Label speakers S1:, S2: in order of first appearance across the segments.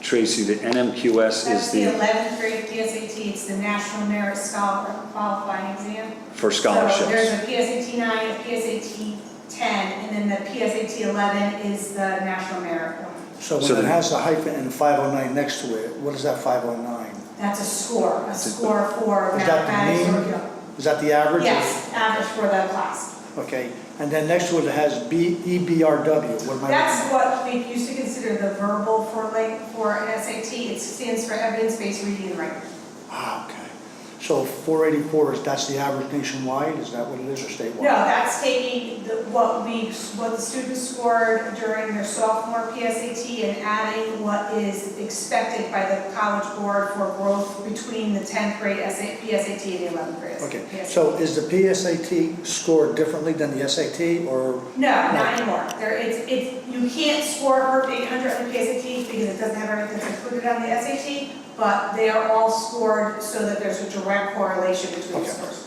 S1: Tracy, the NMQS
S2: That's
S1: is
S2: the
S1: the,
S2: 11th grade PSAT, it's the National Merit Scholar qualifying exam.
S1: for
S2: So there's
S1: scholarships.
S2: a PSAT 9, a PSAT 10, and then the PSAT 11 is the National Merit one.
S3: So
S1: So
S3: when it
S1: the-
S3: has a hyphen and 509 next to it, what is that 509?
S2: That's a score, a score for
S3: Is that the
S2: mathematics or...
S3: mean? Is that the average?
S2: Yes, average for the class.
S3: Okay, and then next to it, it has B, EBRW, what am I?
S2: That's what we used to consider the verbal for like, for an SAT. It stands for evidence-based reading and writing.
S3: Ah, okay. So 484 is, that's the average nationwide, is that what it is, or statewide?
S2: No, that's taking the, what we, what the students scored during their sophomore PSAT and adding what is expected by the college board for growth between the tenth grade SA PSAT and the eleventh grade.
S3: Okay,
S2: PSAT.
S3: so is the PSAT scored differently than the SAT, or,
S2: No, not anymore. There, it's, it's, you can't score a perfect eight hundred on the PSAT because it doesn't have everything that's included on the SAT, but they are all scored so that there's a direct correlation between the
S3: Okay.
S2: scores.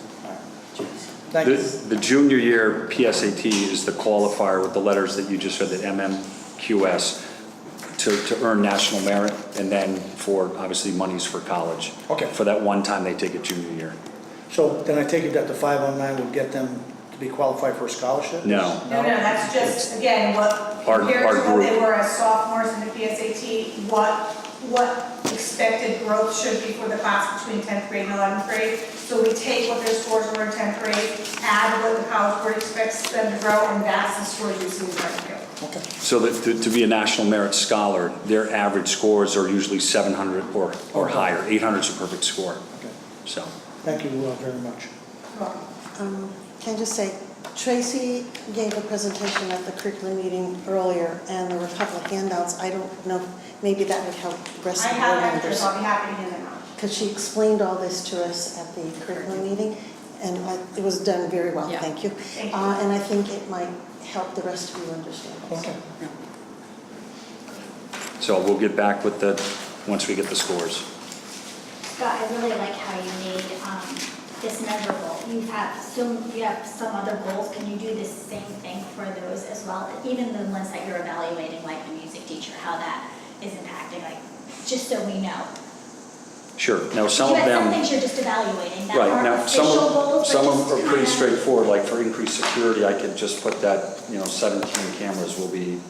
S3: thank
S1: The
S3: you.
S1: the junior year PSAT is the qualifier with the letters that you just read, the MMQS, to, to earn national merit, and then for, obviously, monies for college.
S3: Okay.
S1: For that one time they take it junior year.
S3: So then I take it that the 509 would get them to be qualified for a scholarship?
S1: No.
S2: No, no, that's just, again, what,
S1: Our-
S2: compared
S1: our
S2: to what they
S1: group.
S2: were as sophomores in the PSAT, what, what expected growth should be for the class between 10th grade and 11th grade. So we take what their scores were in 10th grade, add what the college board expects them to grow, and that's the score you see in 10th grade.
S3: Okay.
S1: So that, to- to be a national merit scholar, their average scores are usually 700 or, or higher. 800 is a perfect score,
S3: Okay.
S1: so.
S3: Thank you uh, very much.
S2: Well,
S4: Um, Can I just say, Tracy gave a presentation at the curriculum meeting earlier, and there were a couple of handouts. I don't know, maybe that would help the
S2: I
S4: rest of the board
S2: have extras,
S4: members.
S2: I'll be happy to hand them out.
S4: Because she explained all this to us at the curriculum meeting, and I- it was done very well,
S5: Yeah.
S4: thank you.
S2: Thank you.
S4: Uh, And I think it might help the rest of you understand. also.
S3: Okay.
S1: So we'll get back with the, once we get the scores.
S6: Scott, I really like how you made um, this measurable. You have some, you have some other goals, can you do the same thing for those as well? Even the ones that you're evaluating, like the music teacher, how that is impacting, like, just so we know.
S1: Sure. Now, some of
S6: You have
S1: them.
S6: some things you're just evaluating that
S1: Right,
S6: aren't
S1: now, some
S6: official
S1: of,
S6: goals, but
S1: some of
S6: just
S1: them are pretty
S6: kinda-
S1: straightforward, like for increased security, I could just put that, you know, 17 cameras will be,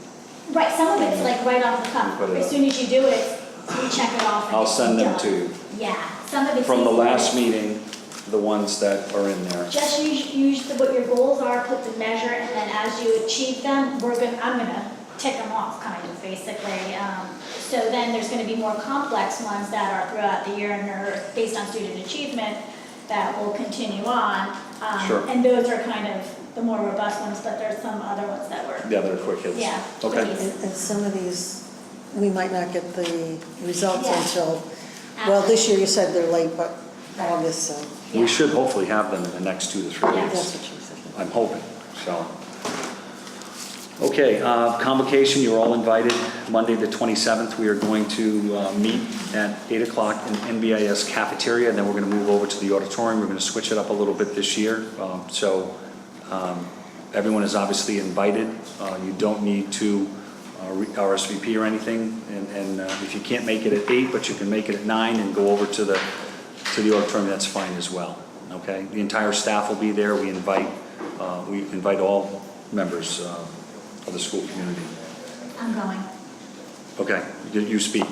S6: Right, some of it's like right off the
S1: Put
S6: cuff.
S1: it
S6: As
S1: up.
S6: soon as you do it, you check it off. and
S1: I'll
S6: it's
S1: send them
S6: done.
S1: to you.
S6: Yeah, some of it's.
S1: From the
S6: easy, but
S1: last
S6: it's-
S1: meeting, the ones that are in there.
S6: Just use, use the- what your goals are, put the measure, and then as you achieve them, we're gonna, I'm gonna tick them off, kind of, basically. Um, So then there's gonna be more complex ones that are throughout the year and are based on student achievement that will continue on. Um,
S1: Sure.
S6: And those are kind of the more robust ones, but there's some other ones that were.
S1: The other quick hits.
S6: Yeah.
S1: Okay.
S4: And and some of these, we might not get the results
S6: Yeah.
S4: until, well, this year you said they're late, but
S6: Right.
S4: August, so
S1: We should hopefully have them in the next two to three
S6: Yeah.
S1: weeks.
S4: that's what she said.
S1: I'm hoping, so. Okay, uh, convocation, you're all invited. Monday, the 27th, we are going to uh, meet at 8 o'clock in NBIS cafeteria, and then we're going to move over to the auditorium. We're going to switch it up a little bit this year. Um, So um, everyone is obviously invited. Uh, You don't need to uh, re- RSVP or anything, and- and uh, if you can't make it at 8, but you can make it at 9 and go over to the, to the auditorium, that's fine as well, okay? The entire staff will be there. We invite, uh, we invite all members uh, of the school community.
S6: I'm going.
S1: Okay, you- you speak.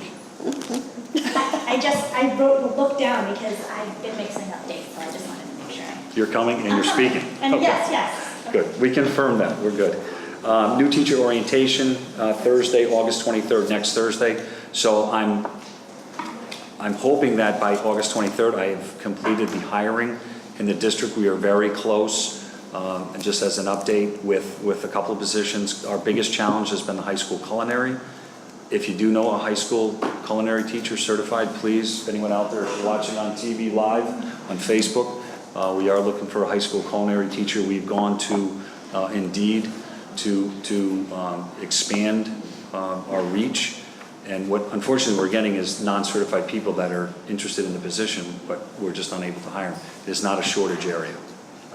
S6: I just, I wrote, looked down because I've been mixing up dates, so I just wanted to make sure.
S1: You're coming and you're speaking.
S6: And
S1: Okay.
S6: yes, yes.
S1: Good, we confirm that, we're good. Um, New teacher orientation, uh, Thursday, August 23rd, next Thursday. So I'm, I'm hoping that by August 23rd, I have completed the hiring in the district. We are very close. Um, And just as an update with, with a couple of positions, our biggest challenge has been the high school culinary. If you do know a high school culinary teacher certified, please, if anyone out there watching on TV live, on Facebook, uh, we are looking for a high school culinary teacher. We've gone to uh, Indeed to, to um, expand um, our reach. And what unfortunately we're getting is non-certified people that are interested in the position, but we're just unable to hire them. It's not a shortage area.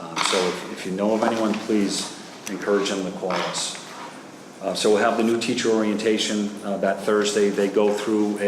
S1: Um, So if- if you know of anyone, please encourage them to call us. Uh, So we'll have the new teacher orientation uh, that Thursday. They go through a